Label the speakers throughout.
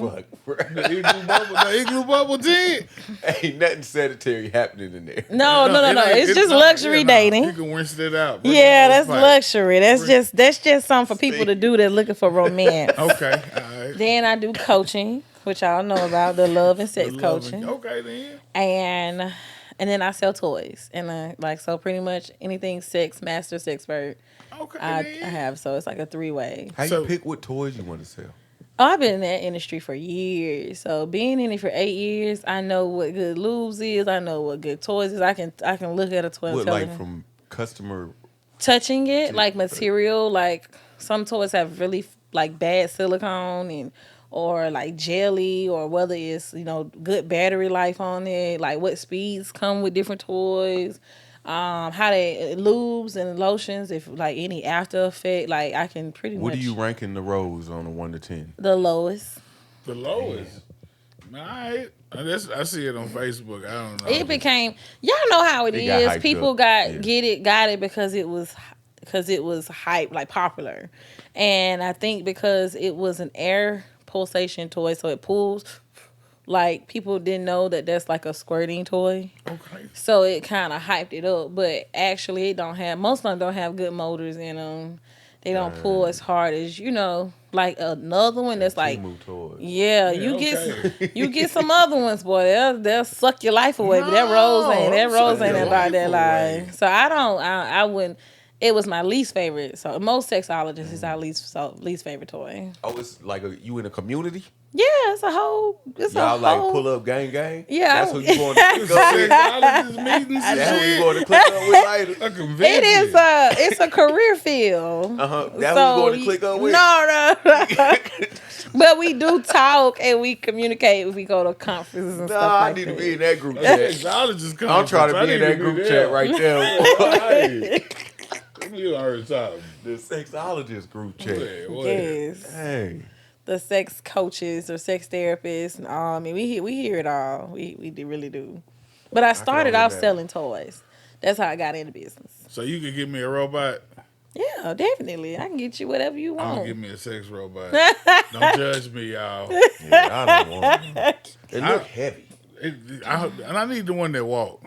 Speaker 1: fuck, bruh.
Speaker 2: The igloo bubble, the igloo bubble did.
Speaker 1: Ain't nothing sanitary happening in there.
Speaker 3: Oh, No, no, no, no. It's just luxury
Speaker 2: You
Speaker 3: dating.
Speaker 2: can rinse it out. but
Speaker 3: Yeah,
Speaker 2: it's
Speaker 3: that's
Speaker 2: like-
Speaker 3: luxury. That's just that's just something for people to do that's looking for romance.
Speaker 2: Okay, all right.
Speaker 3: Then I do coaching, which y'all know about the love and sex
Speaker 2: The love and-
Speaker 3: coaching,
Speaker 2: Okay, then.
Speaker 3: and and then I sell toys and I, like so pretty much anything sex master sex expert
Speaker 2: Okay,
Speaker 3: I, I
Speaker 2: then.
Speaker 3: have. So it's like a three way.
Speaker 1: How
Speaker 2: So-
Speaker 1: you pick what toys you want to sell?
Speaker 3: Oh, I've been in that industry for years. So being in it for eight years, I know what good lubes is. I know what good toys is. I can I can look at a toy. and
Speaker 1: What
Speaker 3: tell
Speaker 1: like
Speaker 3: them-
Speaker 1: from customer?
Speaker 3: touching it, like material, like some toys have really like bad silicone and or like jelly or whether it's you know good battery life on it, like what speeds come with different toys, um, how they lubes and lotions, if like any after effect, like I can pretty
Speaker 1: What
Speaker 3: much
Speaker 1: do you rank in the rows on a one to ten?
Speaker 3: the lowest.
Speaker 2: The lowest. All right. I, just, I see it on Facebook. I don't know.
Speaker 3: It became y'all know how it
Speaker 1: It got
Speaker 3: is.
Speaker 1: hyped
Speaker 3: People
Speaker 1: up.
Speaker 3: got
Speaker 1: Yeah.
Speaker 3: get it got it because it was because it was hype like popular, and I think because it was an air pulsation toy, so it pulls. Like people didn't know that that's like a squirting toy,
Speaker 2: okay.
Speaker 3: so it kind of hyped it up. But actually, it don't have most of them don't have good motors in them. They don't pull as hard as you know. Like another one that's like
Speaker 1: move toys.
Speaker 3: yeah,
Speaker 2: Yeah,
Speaker 3: you
Speaker 2: okay.
Speaker 3: get s- you get some other ones, boy. They'll they'll suck your life away. but that rose ain't that
Speaker 2: No,
Speaker 3: rose
Speaker 2: suck
Speaker 3: ain't
Speaker 2: your
Speaker 3: about that
Speaker 2: life away.
Speaker 3: life. So I don't I, I wouldn't. It was my least favorite. So most sexologists is
Speaker 1: Mm.
Speaker 3: our least so, least favorite toy.
Speaker 1: Oh, it's like a, you in a community.
Speaker 3: Yeah, it's a whole. It's
Speaker 1: Y'all
Speaker 3: a
Speaker 1: like
Speaker 3: whole,
Speaker 1: pull up gang gang.
Speaker 3: Yeah,
Speaker 1: that's
Speaker 3: I-
Speaker 1: who you going to click up with.
Speaker 2: Sexologist meetings and
Speaker 1: That's who you
Speaker 2: shit.
Speaker 1: going to click up with later.
Speaker 2: A convention.
Speaker 3: It is a it's a career field.
Speaker 1: Uh huh. That's who you going to click up with.
Speaker 3: No, no, no. but we do talk and we communicate if we go to conferences and
Speaker 1: Nah,
Speaker 3: stuff
Speaker 1: I
Speaker 3: like
Speaker 1: need
Speaker 3: that.
Speaker 1: to be in that group
Speaker 2: That's
Speaker 1: chat.
Speaker 2: sexologist
Speaker 1: I'm
Speaker 2: conference.
Speaker 1: trying
Speaker 2: I
Speaker 1: to be in
Speaker 2: need
Speaker 1: that group
Speaker 2: there.
Speaker 1: chat right there.
Speaker 2: Right. You heard something.
Speaker 1: the sexologist group chat.
Speaker 2: Yeah, what?
Speaker 3: yes.
Speaker 1: Hey,
Speaker 3: the sex coaches or sex therapists. and all. I mean, we hear we hear it all. We we do- really do. But I started
Speaker 1: only
Speaker 3: off
Speaker 1: imagine.
Speaker 3: selling toys. That's how I got into business.
Speaker 2: So you could give me a robot.
Speaker 3: Yeah, definitely. I can get you whatever you
Speaker 2: I'm
Speaker 3: want.
Speaker 2: gonna give me a sex robot. Don't judge me, y'all.
Speaker 1: yeah, I don't want. It, it
Speaker 2: I-
Speaker 1: look heavy.
Speaker 2: It- I, and I need the one that walk.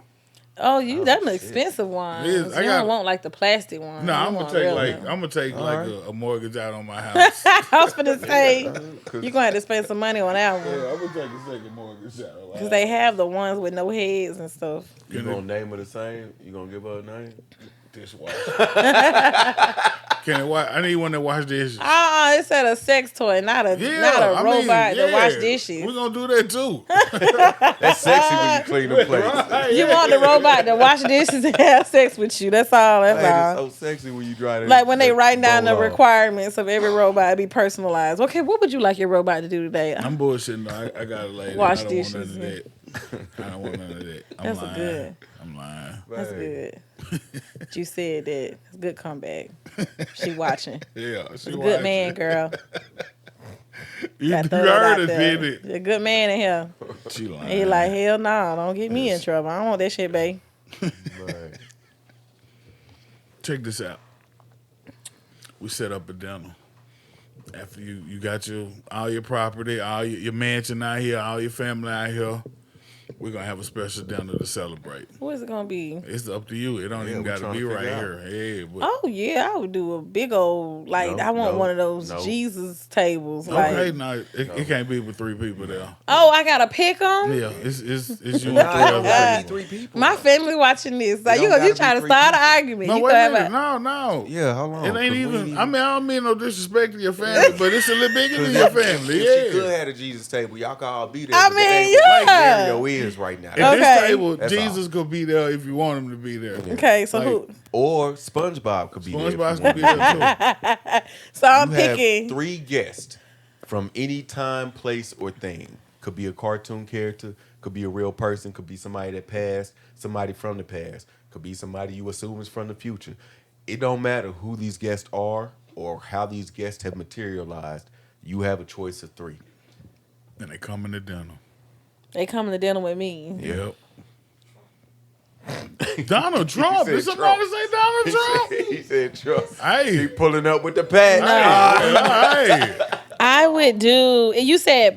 Speaker 3: oh, you that's an expensive one.
Speaker 2: It is.
Speaker 3: You
Speaker 2: I
Speaker 3: don't
Speaker 2: got-
Speaker 3: want like the plastic one.
Speaker 2: No,
Speaker 3: You
Speaker 2: I'm gonna
Speaker 3: want
Speaker 2: take
Speaker 3: real
Speaker 2: like
Speaker 3: one.
Speaker 2: I'm gonna take like
Speaker 1: right.
Speaker 2: a, a mortgage out on my house. yeah,
Speaker 3: I was gonna say you're
Speaker 1: 'Cause
Speaker 3: gonna have to spend some money on that one.
Speaker 2: I'm gonna take a second mortgage out. on my
Speaker 3: Cause
Speaker 2: house.
Speaker 3: they have the ones with no heads and stuff.
Speaker 1: you gonna name her the same? You gonna give her a name?
Speaker 2: Dish wash. Can it wash? I need one that wash dishes.
Speaker 3: Ah, uh, it said a sex toy, not a
Speaker 2: Yeah,
Speaker 3: not a
Speaker 2: I
Speaker 3: robot
Speaker 2: mean,
Speaker 3: that wash
Speaker 2: yeah.
Speaker 3: dishes.
Speaker 2: We're gonna do that too.
Speaker 1: That's sexy when you clean the plate.
Speaker 2: Right.
Speaker 3: You want the robot to wash dishes and have sex with you. That's all. That's
Speaker 1: That
Speaker 3: all.
Speaker 1: is so sexy when you dry that.
Speaker 3: Like when they
Speaker 1: that
Speaker 3: writing down the
Speaker 1: bowl off.
Speaker 3: requirements of every robot, it be personalized. Okay, what would you like your robot to do today?
Speaker 2: I'm bullshitting. though. I, I got a lady.
Speaker 3: Wash
Speaker 2: I don't
Speaker 3: dishes,
Speaker 2: want none
Speaker 3: man.
Speaker 2: of that. I don't want none of that. I'm
Speaker 3: That's a
Speaker 2: lying.
Speaker 3: good.
Speaker 2: I'm lying.
Speaker 3: That's
Speaker 1: Hey,
Speaker 3: good. That you said that. It's a good comeback. She watching.
Speaker 2: Yeah, she
Speaker 3: Good
Speaker 2: watching.
Speaker 3: man, girl.
Speaker 2: You, you
Speaker 3: Gotta throw that out
Speaker 2: heard it,
Speaker 3: there.
Speaker 2: did it?
Speaker 3: You're a good man in here.
Speaker 2: She lying.
Speaker 3: He like hell no, don't get me in trouble. I don't want that shit, babe.
Speaker 1: right.
Speaker 2: check this out. We set up a dinner. After you, you got your all your property, all your, your mansion out here, all your family out here. We're gonna have a special dinner to celebrate.
Speaker 3: What is it gonna be?
Speaker 2: It's up to you. It don't
Speaker 1: Yeah,
Speaker 2: even
Speaker 1: we
Speaker 2: gotta
Speaker 1: tryna
Speaker 2: be
Speaker 1: figure
Speaker 2: right
Speaker 1: out.
Speaker 2: here. Hey, but
Speaker 3: Oh yeah, I would do a big old like
Speaker 1: No,
Speaker 3: I want
Speaker 1: no,
Speaker 3: one of those
Speaker 1: no.
Speaker 3: Jesus tables. Like
Speaker 2: okay, no, it, it can't be with three people there.
Speaker 3: oh, I gotta pick them.
Speaker 2: Yeah, it's it's it's you and
Speaker 1: Nah,
Speaker 2: three other
Speaker 1: it gotta
Speaker 2: people.
Speaker 1: be three people.
Speaker 3: My family watching this. Like
Speaker 1: It
Speaker 3: you,
Speaker 1: don't
Speaker 3: you
Speaker 1: gotta be
Speaker 3: trying to
Speaker 1: three
Speaker 3: start an argument.
Speaker 2: No,
Speaker 3: you
Speaker 2: wait
Speaker 3: gonna
Speaker 2: a
Speaker 3: have
Speaker 2: minute.
Speaker 3: a-
Speaker 2: No, no.
Speaker 1: yeah, how long?
Speaker 2: It ain't
Speaker 1: 'Cause we
Speaker 2: even. I mean, I don't mean no disrespect to your family, but it's a little bigger than your family.
Speaker 1: If she could
Speaker 2: Yeah.
Speaker 1: have a Jesus table, y'all could all be there.
Speaker 3: I
Speaker 1: but that
Speaker 3: mean,
Speaker 1: ain't what
Speaker 3: yeah.
Speaker 1: Mike Mario is right now.
Speaker 2: At
Speaker 3: Okay.
Speaker 2: this table,
Speaker 1: That's all.
Speaker 2: Jesus could be there if you want him to be there.
Speaker 3: okay, so
Speaker 2: Like,
Speaker 3: who?
Speaker 1: Or SpongeBob could be there.
Speaker 2: SpongeBob's
Speaker 1: if
Speaker 2: gonna be
Speaker 1: you
Speaker 2: there
Speaker 1: want.
Speaker 2: too.
Speaker 3: So I'm
Speaker 1: You have
Speaker 3: picking.
Speaker 1: three guests from any time, place, or thing. Could be a cartoon character, could be a real person, could be somebody that passed, somebody from the past, could be somebody you assume is from the future. It don't matter who these guests are or how these guests have materialized. You have a choice of three.
Speaker 2: And they coming to dinner.
Speaker 3: They coming to dinner with me.
Speaker 2: Yep. Donald Trump.
Speaker 1: said
Speaker 2: Did somebody
Speaker 1: Trump.
Speaker 2: say Donald Trump?
Speaker 1: he said, "Trust."
Speaker 2: hey.
Speaker 1: He pulling up with the past.
Speaker 2: Hey. hey.
Speaker 3: I would do. and You said